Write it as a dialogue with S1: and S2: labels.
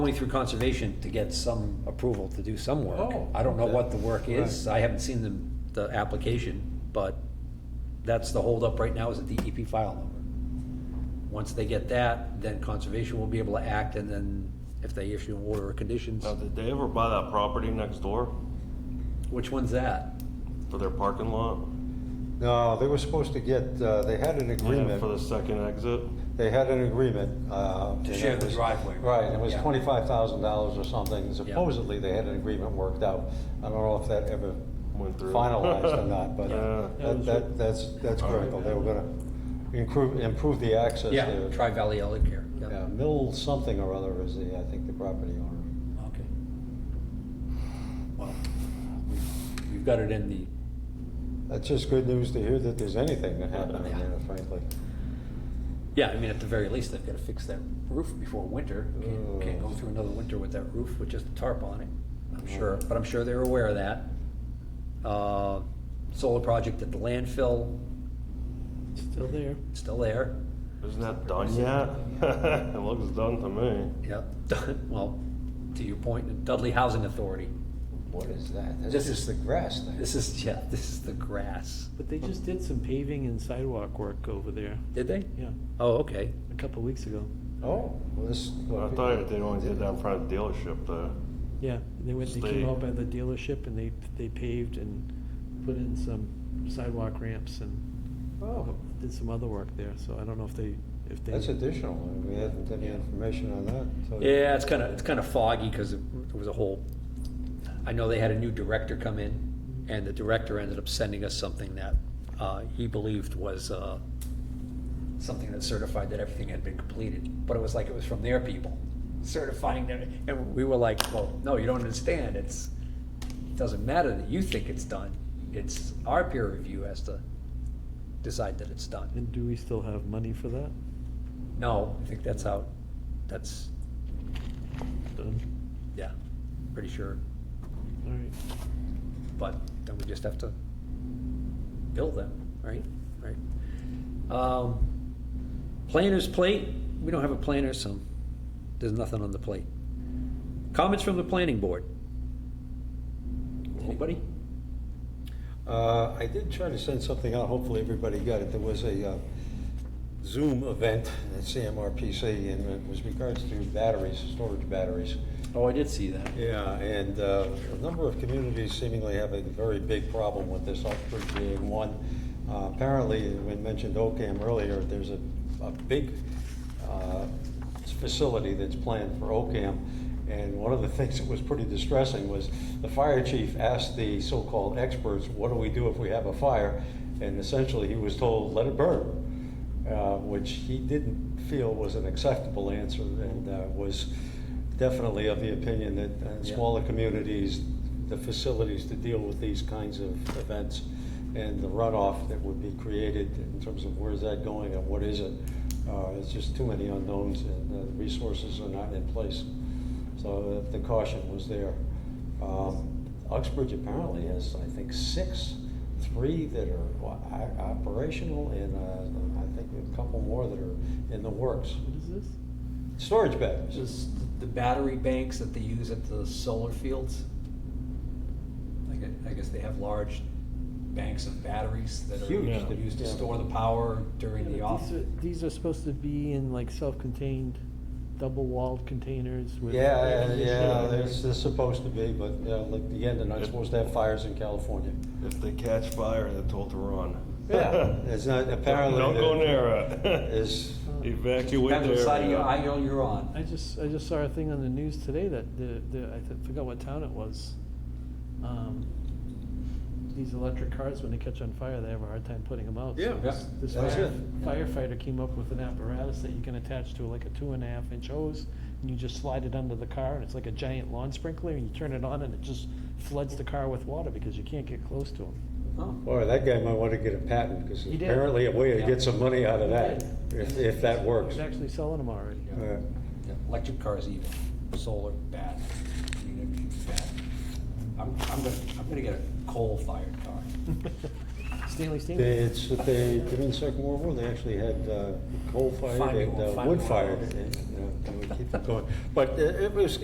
S1: only through conservation to get some approval to do some work.
S2: Oh,
S1: I don't know
S2: okay.
S1: what the work is, I haven't seen the, the application, but that's the holdup right now is the DEP file number. Once they get that, then conservation will be able to act, and then if they issue an order of conditions,
S3: Now, did they ever buy that property next door
S1: which one's that?
S3: for their parking lot?
S2: No, they were supposed to get, uh, they had an
S3: Yeah, For the
S2: agreement,
S3: second exit?
S2: they had an agreement. uh, and
S1: share
S2: it
S1: the
S2: was-
S1: driveway.
S2: Right, and it was
S1: Yeah.
S2: twenty-five thousand dollars or something, supposedly they had an agreement worked out. I don't know if that ever
S3: Went through.
S2: finalized or not, but
S3: Yeah.
S2: that, that, that's, that's critical. They were gonna improve, improve the access
S1: Yeah,
S2: there.
S1: Tri Valley Elder Care,
S2: Yeah,
S1: yeah.
S2: Mill something or other is the, I think, the property owner.
S1: Okay. Well, we've- we've got it in the,
S2: That's just good news to hear that there's anything that happened in there, frankly.
S1: yeah, I mean, at the very least, they've gotta fix that roof before winter. Can't- Can't go
S2: Oh.
S1: through another winter with that roof with just a tarp on it, I'm
S4: Oh.
S1: sure, but I'm sure they're aware of that. Uh, Solar project at the landfill,
S4: Still there.
S1: it's still there,
S3: Isn't that done yet? It looks done to me.
S1: yeah, well, to your point, Dudley Housing Authority,
S2: What is that? That's
S1: This
S2: just
S1: is-
S2: the grass thing.
S1: this is, yeah, this is the grass.
S4: But they just did some paving and sidewalk work over there.
S1: Did they?
S4: Yeah,
S1: Oh, okay,
S4: a couple of weeks ago.
S2: Oh, well, this.
S3: I thought they only did that in front of the dealership there.
S4: Yeah, they went, they
S3: Stay.
S4: came out by the dealership and they, they paved and put in some sidewalk ramps and
S2: Oh,
S4: did some other work there, so I don't know if they, if they.
S2: that's additional. We hadn't any information on that. so-
S1: yeah, it's kinda, it's kinda foggy, cause it- there was a whole, I know they had a new director come in, and the director ended up sending us something that uh, he believed was uh, something that certified that everything had been completed, but it was like it was from their people certifying that, and we were like, well, no, you don't understand, it's, it doesn't matter that you think it's done, it's our peer review has to decide that it's done.
S4: And do we still have money for that?
S1: No, I think that's how, that's,
S4: Done,
S1: yeah, pretty sure,
S4: all right.
S1: but then we just have to bill them, right? Right. Um, Planner's plate, we don't have a planner, so there's nothing on the plate. Comments from the planning board? Anybody?
S2: Uh, I did try to send something out, hopefully everybody got it. There was a uh, Zoom event at CMRPC, and it was regards to batteries, storage batteries.
S1: Oh, I did see that.
S2: Yeah, and uh, a number of communities seemingly have a very big problem with this, Uxbridge being one. Uh, Apparently, we mentioned Ocam earlier, there's a, a big uh, facility that's planned for Ocam, and one of the things that was pretty distressing was the fire chief asked the so-called experts, what do we do if we have a fire? And essentially, he was told, let it burn uh, which he didn't feel was an acceptable answer and uh, was definitely of the opinion that in
S1: Yeah.
S2: smaller communities, the facilities to deal with these kinds of events and the runoff that would be created in terms of where's that going and what is it, uh, it's just too many unknowns and uh, resources are not in place. So uh, the the caution was there. Um, Uxbridge apparently has, I think, six, three that are o- o- operational and uh, I think a couple more that are in the works.
S4: What is this?
S2: Storage batteries.
S1: Just the battery banks that they use at the solar fields. I guess, I guess they have large banks of batteries that
S2: Huge,
S1: are used to
S2: yeah.
S1: store the power
S4: Yeah,
S1: during the
S4: these
S1: off.
S4: are- These are supposed to be in like self-contained, double-walled containers with. air
S2: Yeah,
S4: conditioning.
S2: yeah, there's, there's supposed to be, but yeah, like the end, they're not supposed to have fires in California.
S3: If they catch fire, they're told to run.
S2: Yeah, it's not, apparently.
S3: Don't go
S2: there
S3: near it.
S2: Is,
S3: Evacuate the
S1: Depends what side of
S2: uh,
S1: your
S3: area.
S1: aisle you're on.
S4: I just, I just saw a thing on the news today that the, the, I th- forgot what town it was. Um, These electric cars, when they catch on fire, they have a hard time putting them out. So
S2: Yeah.
S4: this- This
S2: That's
S4: fire-
S2: it.
S4: firefighter came up with an apparatus that you can attach to like a two and a half inch hose, and you just slide it under the car, and it's like a giant lawn sprinkler, and you turn it on, and it just floods the car with water because you can't get close to them.
S1: Oh.
S2: boy, that guy might want to get a patent because
S4: He did.
S2: apparently a way to
S1: Yeah.
S2: get some money out of that, if, if that works.
S4: He's actually selling them already.
S2: Yeah.
S1: Yeah, Electric cars even, solar, bad. I mean, it's bad. I'm, I'm gonna, I'm gonna get a coal-fired car.
S4: Stanley Stanley.
S2: They, it's, they, during the Second World War, they actually had uh, coal fired
S1: Find me
S2: and
S1: one,
S2: uh,
S1: find me
S2: wood
S1: one.
S2: fired. and, you know, they would keep it going. But uh, it was,